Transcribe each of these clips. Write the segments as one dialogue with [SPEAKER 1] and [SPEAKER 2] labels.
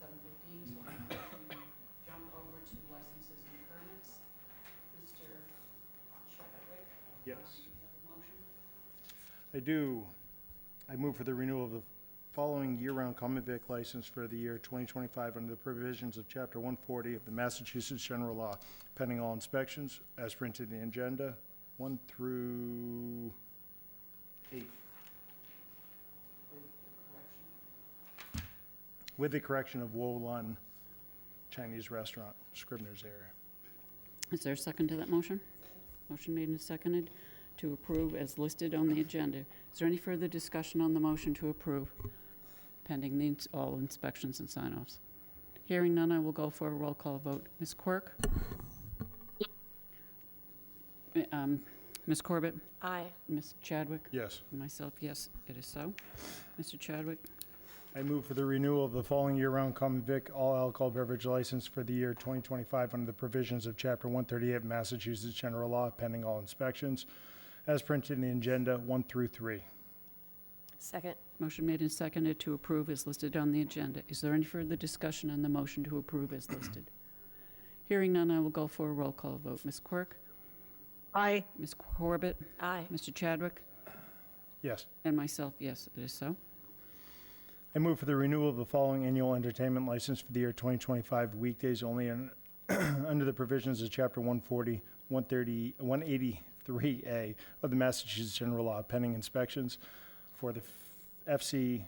[SPEAKER 1] seven fifteen, so I'm going to jump over to licenses and permits. Mr. Chadwick? uh,
[SPEAKER 2] Yes.
[SPEAKER 1] do you have a motion?
[SPEAKER 2] I do. I move for the renewal of the following year-round common vic license for the year 2025 under the provisions of Chapter 140 of the Massachusetts General Law, pending all inspections, as printed in the agenda, 1 through 8,
[SPEAKER 1] With the correction.
[SPEAKER 2] with the correction of Wolun Chinese Restaurant, Scribner's error.
[SPEAKER 3] Is there a second to that motion? Motion made and seconded to approve as listed on the agenda. Is there any further discussion on the motion to approve pending the, ins- all inspections and sign-offs? Hearing none, I will go for a roll call vote. Ms. Quirk? Uh, um, Ms. Corbett?
[SPEAKER 4] Aye.
[SPEAKER 3] Ms. Chadwick?
[SPEAKER 2] Yes.
[SPEAKER 3] And Myself, yes, it is so. Mr. Chadwick?
[SPEAKER 2] I move for the renewal of the following year-round common vic all alcohol beverage license for the year 2025 under the provisions of Chapter 138 Massachusetts General Law, pending all inspections, as printed in the agenda 1 through 3.
[SPEAKER 4] Second.
[SPEAKER 3] Motion made and seconded to approve is listed on the agenda. Is there any further discussion on the motion to approve as listed? Hearing none, I will go for a roll call vote. Ms. Quirk?
[SPEAKER 4] Aye.
[SPEAKER 3] Ms. Corbett?
[SPEAKER 4] Aye.
[SPEAKER 3] Mr. Chadwick?
[SPEAKER 2] Yes.
[SPEAKER 3] And myself, yes, it is so.
[SPEAKER 2] I move for the renewal of the following annual entertainment license for the year 2025 weekdays only and under the provisions of Chapter 140, 130, 183A of the Massachusetts General Law, pending inspections for the FC2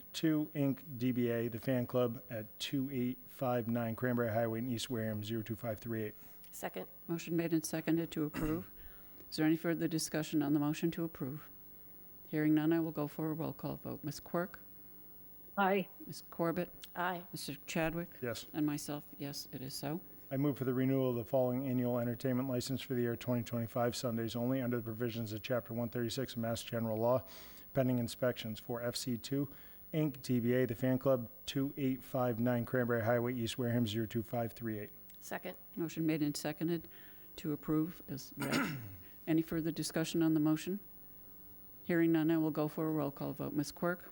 [SPEAKER 2] Inc. DBA, The Fan Club at 2859 Cranberry Highway in East Wareham, 02538.
[SPEAKER 4] Second.
[SPEAKER 3] Motion made and seconded to approve. Is there any further discussion on the motion to approve? Hearing none, I will go for a roll call vote. Ms. Quirk?
[SPEAKER 4] Aye.
[SPEAKER 3] Ms. Corbett?
[SPEAKER 4] Aye.
[SPEAKER 3] Mr. Chadwick?
[SPEAKER 2] Yes.
[SPEAKER 3] And myself, yes, it is so.
[SPEAKER 2] I move for the renewal of the following annual entertainment license for the year 2025, Sundays only, under the provisions of Chapter 136 of Mass General Law, pending inspections for FC2, Inc., DBA, The Fan Club, 2859 Cranberry Highway, East Wareham, 02538.
[SPEAKER 4] Second.
[SPEAKER 3] Motion made and seconded to approve is read. Any further discussion on the motion? Hearing none, I will go for a roll call vote. Ms. Quirk?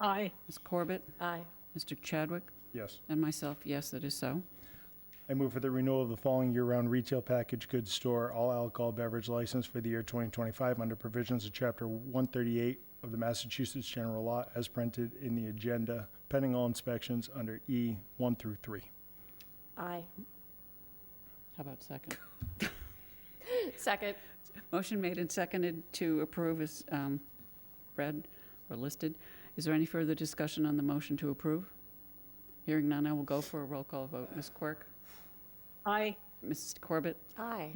[SPEAKER 4] Aye.
[SPEAKER 3] Ms. Corbett?
[SPEAKER 4] Aye.
[SPEAKER 3] Mr. Chadwick?
[SPEAKER 2] Yes.
[SPEAKER 3] And myself, yes, it is so.
[SPEAKER 2] I move for the renewal of the following year-round retail package goods store all alcohol beverage license for the year 2025 under provisions of Chapter 138 of the Massachusetts General Law as printed in the agenda, pending all inspections under E 1 through 3.
[SPEAKER 4] Aye.
[SPEAKER 3] How about second?
[SPEAKER 4] Second.
[SPEAKER 3] Motion made and seconded to approve is um, read or listed. Is there any further discussion on the motion to approve? Hearing none, I will go for a roll call vote. Ms. Quirk?
[SPEAKER 4] Aye.
[SPEAKER 3] Ms. Corbett?
[SPEAKER 4] Aye.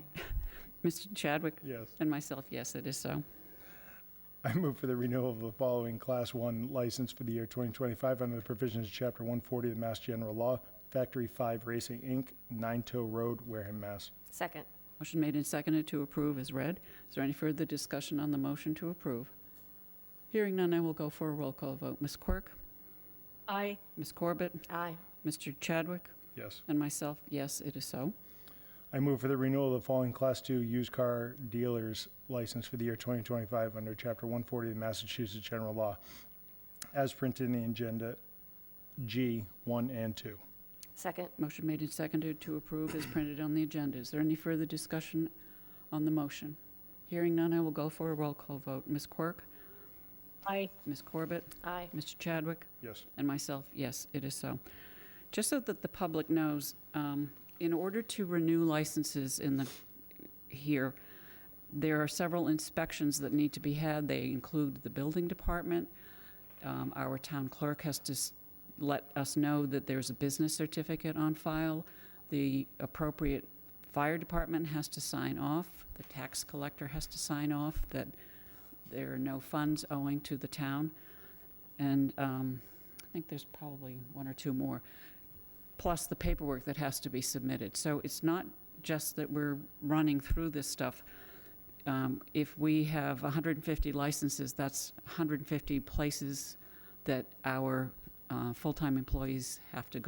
[SPEAKER 3] Mr. Chadwick?
[SPEAKER 2] Yes.
[SPEAKER 3] And myself, yes, it is so.
[SPEAKER 2] I move for the renewal of the following Class 1 license for the year 2025 under the provisions of Chapter 140 of the Mass General Law, Factory 5 Racing, Inc., Nine Toe Road, Wareham, Mass.
[SPEAKER 4] Second.
[SPEAKER 3] Motion made and seconded to approve is read. Is there any further discussion on the motion to approve? Hearing none, I will go for a roll call vote. Ms. Quirk?
[SPEAKER 4] Aye.
[SPEAKER 3] Ms. Corbett?
[SPEAKER 4] Aye.
[SPEAKER 3] Mr. Chadwick?
[SPEAKER 2] Yes.
[SPEAKER 3] And myself, yes, it is so.
[SPEAKER 2] I move for the renewal of the following Class 2 used car dealers license for the year 2025 under Chapter 140 of the Massachusetts General Law, as printed in the agenda G 1 and 2.
[SPEAKER 4] Second.
[SPEAKER 3] Motion made and seconded to approve is printed on the agenda. Is there any further discussion on the motion? Hearing none, I will go for a roll call vote. Ms. Quirk?
[SPEAKER 4] Aye.
[SPEAKER 3] Ms. Corbett?
[SPEAKER 4] Aye.
[SPEAKER 3] Mr. Chadwick?
[SPEAKER 2] Yes.
[SPEAKER 3] And myself, yes, it is so. Just so that the public knows, um, in order to renew licenses in the, here, there are several inspections that need to be had. They include the building department. Um, Our town clerk has to s- let us know that there's a business certificate on file. The appropriate fire department has to sign off. The tax collector has to sign off that there are no funds owing to the town. And um, I think there's probably one or two more, plus the paperwork that has to be submitted. So it's not just that we're running through this stuff. Um, If we have 150 licenses, that's 150 places that our uh, full-time employees have to go.